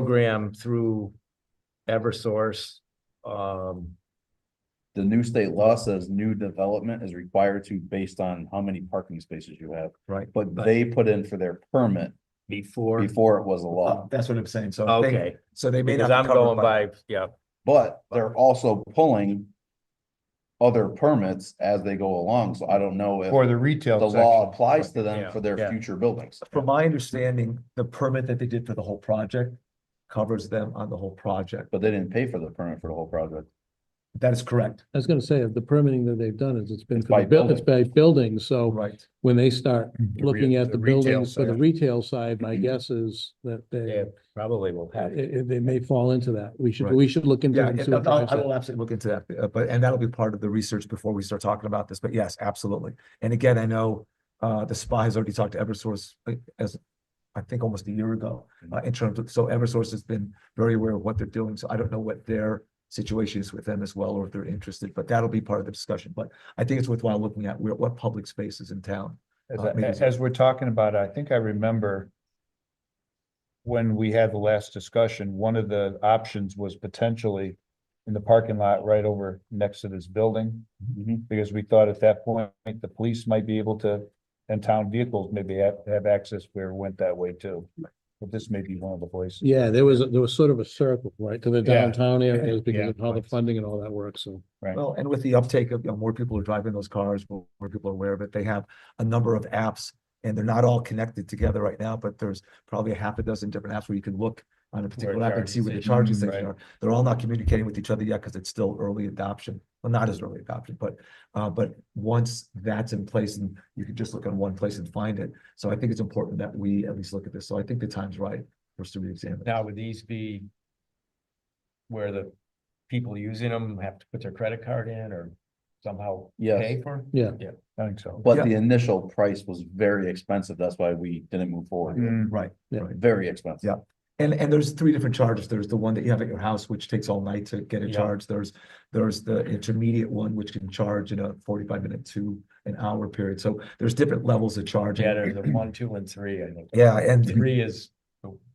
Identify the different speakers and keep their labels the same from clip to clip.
Speaker 1: program through Eversource. Um,
Speaker 2: The new state law says new development is required to based on how many parking spaces you have,
Speaker 1: right,
Speaker 2: but they put in for their permit
Speaker 1: before,
Speaker 2: before it was a
Speaker 3: Uh,
Speaker 1: Uh-huh.
Speaker 2: law.
Speaker 3: That's what I'm saying, so. they-
Speaker 1: okay,
Speaker 3: So they may
Speaker 1: because
Speaker 3: not. be
Speaker 1: I'm
Speaker 3: covered
Speaker 1: going by, yeah,
Speaker 2: But they're also pulling other permits as they go along, so I don't know if
Speaker 4: For the
Speaker 2: the
Speaker 4: retail.
Speaker 2: law
Speaker 4: section.
Speaker 2: applies to
Speaker 1: Yeah,
Speaker 2: them for their
Speaker 1: yeah.
Speaker 2: future buildings.
Speaker 3: From my understanding, the permit that they did for the whole project covers them on the whole project.
Speaker 2: But they didn't pay for the permit for the whole project.
Speaker 3: That is correct,
Speaker 5: I was gonna say, the permitting that they've done is it's been,
Speaker 2: It's
Speaker 5: for
Speaker 2: by
Speaker 5: the buil- it's by buildings, so
Speaker 3: right.
Speaker 5: when they start looking at the
Speaker 4: the retail
Speaker 5: buildings for the
Speaker 4: side.
Speaker 5: retail side, my guess is that they,
Speaker 1: yeah, probably will have. it.
Speaker 5: it- it- they may fall into that. We should,
Speaker 3: Right.
Speaker 5: we should look into
Speaker 3: Yeah,
Speaker 5: it and see what
Speaker 3: and I'll-
Speaker 5: drives
Speaker 3: I
Speaker 5: that.
Speaker 3: will absolutely look into that, uh, but, and that'll be part of the research before we start talking about this, but yes, absolutely. And again, I know, uh, the SPA has already talked to Eversource, like, as, I think almost a year ago, uh, in terms of, so Eversource has been very aware of what they're doing, so I don't know what their situation is with them as well, or if they're interested, but that'll be part of the discussion, but I think it's worthwhile looking at where, what public spaces in town.
Speaker 4: As,
Speaker 3: Uh, maybe-
Speaker 4: I- as we're talking about, it, I think I remember when we had the last discussion, one of the options was potentially in the parking lot right over next to this building,
Speaker 1: Mm-hmm.
Speaker 2: Mm-hmm.
Speaker 4: because we thought at that point, the police might be able to, and town vehicles maybe have, have access where it went that way too. But this may be one of the places.
Speaker 5: Yeah, there was, there was sort of a circle, right, to the
Speaker 4: Yeah.
Speaker 5: downtown areas
Speaker 4: Yeah.
Speaker 5: because of how the funding and all that works, so.
Speaker 4: Right.
Speaker 3: Well, and with the uptake of, you know, more people are driving those cars, more more people are aware of it. They have a number of apps and they're not all connected together right now, but there's probably a half a dozen different apps where you can look on a particular app and see where the charging
Speaker 4: charging station-
Speaker 3: stations are. They're all not communicating with each other yet because it's still early adoption. Well, not as early adoption, but, uh, but once that's in place and you can just look on one place and find it. So I think it's important that we at least look at this. So I think the time's right for us to reexamine.
Speaker 1: Now, would these be where the people using them have to put their credit card in or somehow
Speaker 2: Yes,
Speaker 1: pay for?
Speaker 4: I think so.
Speaker 2: but the initial price was very expensive. That's why we didn't move forward. with it.
Speaker 4: Mm,
Speaker 3: Right,
Speaker 5: Yeah.
Speaker 3: right.
Speaker 2: Very expensive.
Speaker 3: Yeah. And, and there's three different charges. There's the one that you have at your house, which takes all night to get a
Speaker 1: Yeah.
Speaker 3: charge. There's, there's the intermediate one, which can charge in a forty-five minute to an hour period. So there's different levels of charging.
Speaker 1: Yeah, there's a one, two, and three, I think.
Speaker 3: Yeah, and
Speaker 1: Three is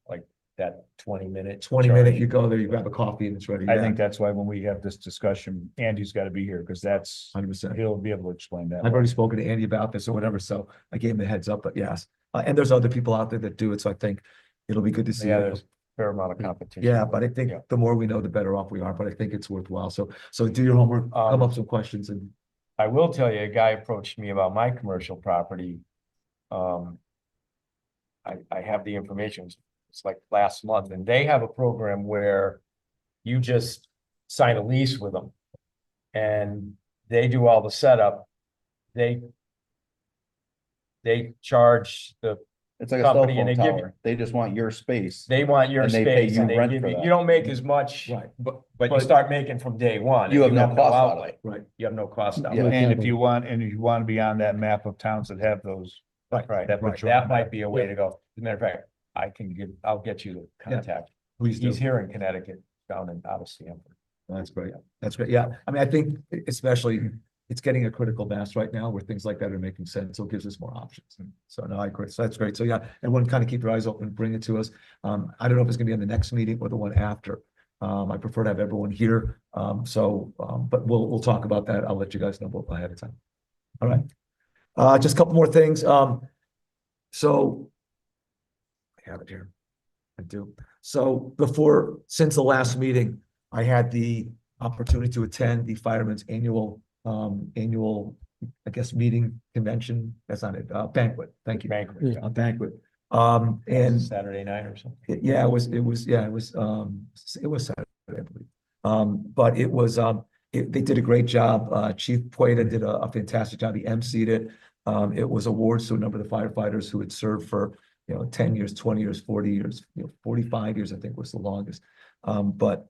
Speaker 1: like that twenty minute.
Speaker 3: twenty minute, you go there, you grab a coffee and it's ready.
Speaker 4: I think that's why when we have this discussion, Andy's gotta be here, because that's,
Speaker 3: Hundred percent.
Speaker 4: he'll be able to explain that.
Speaker 3: I've already spoken to Andy about this or whatever, so I gave him the heads up, but yes. Uh, and there's other people out there that do it, so I think it'll be good to see.
Speaker 1: Yeah,
Speaker 3: it.
Speaker 1: there's fair amount of competition.
Speaker 3: Yeah, but I think
Speaker 1: Yeah.
Speaker 3: the more we know, the better off we are, but I think it's worthwhile. So, so do your homework, come
Speaker 1: Um,
Speaker 3: up with some questions and
Speaker 1: I will tell you, a guy approached me about my commercial property. Um. I, I have the information, it's like last month, and they have a program where you just sign a lease with them. And they do all the setup, they. They charge the,
Speaker 2: It's like a cell
Speaker 1: Company and
Speaker 2: phone
Speaker 1: they give you-
Speaker 2: tower. They just want your space.
Speaker 1: they want your
Speaker 2: And they pay
Speaker 1: space
Speaker 2: you
Speaker 1: and they
Speaker 2: rent
Speaker 1: give
Speaker 2: for
Speaker 1: you,
Speaker 2: that.
Speaker 1: you don't make as much,
Speaker 3: Right.
Speaker 1: but, but you
Speaker 3: But-
Speaker 1: start making from day one. and
Speaker 2: You have no cost out of
Speaker 1: outlay.
Speaker 3: Right.
Speaker 1: You have no cost out.
Speaker 2: Yeah.
Speaker 4: And if you want, and if you want to be on that map of towns that have those.
Speaker 3: Right,
Speaker 1: Right,
Speaker 4: That
Speaker 3: right.
Speaker 4: puts you on
Speaker 1: that
Speaker 4: the
Speaker 1: might
Speaker 4: map.
Speaker 1: be a way to go. As a matter of fact, I can give, I'll get you the
Speaker 3: Yeah.
Speaker 1: contact.
Speaker 3: please do.
Speaker 1: He's here in Connecticut, down in out of Stamford.
Speaker 3: That's great. That's great. Yeah. I mean, I think especially it's getting a critical mass right now where things like that are making sense. So it gives us more options. So no, I agree. So that's great. So yeah, everyone kind of keep your eyes open, bring it to us. Um, I don't know if it's gonna be on the next meeting or the one after. Um, I prefer to have everyone here. Um, so, um, but we'll, we'll talk about that. I'll let you guys know ahead of time. All right. Uh, just a couple more things. Um, so I have it here. I do. So before, since the last meeting, I had the opportunity to attend the Firemen's annual, um, annual, I guess, meeting convention, that's not it, uh, banquet, thank you.
Speaker 1: Banquet.
Speaker 3: A banquet, um, and
Speaker 1: Saturday night or something.
Speaker 3: it- Yeah, it was, it was, yeah, it was, um, s- it was Saturday, I believe. Um, but it was, um, it, they did a great job. Uh, Chief Pueda did a, a fantastic job. He emceed it. Um, it was awards to a number of the firefighters who had served for, you know, ten years, twenty years, forty years, you know, forty-five years, I think was the longest. Um, but,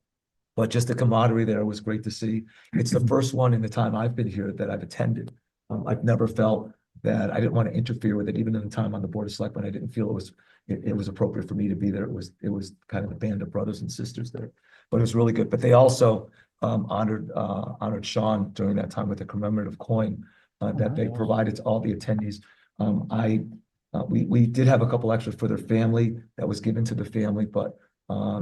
Speaker 3: but just the camaraderie there was great to see. It's the first one in the time I've been here that I've attended. Um, I've never felt that I didn't want to interfere with it, even in the time on the Board of Selectmen, I didn't feel it was it, it was appropriate for me to be there. It was, it was kind of a band of brothers and sisters there. But it was really good. But they also um, honored, uh, honored Sean during that time with a commemorative coin uh, that they
Speaker 1: nice.
Speaker 3: provided to all the attendees. Um, I, uh, we, we did have a couple extras for their family that was given to the family, but Um,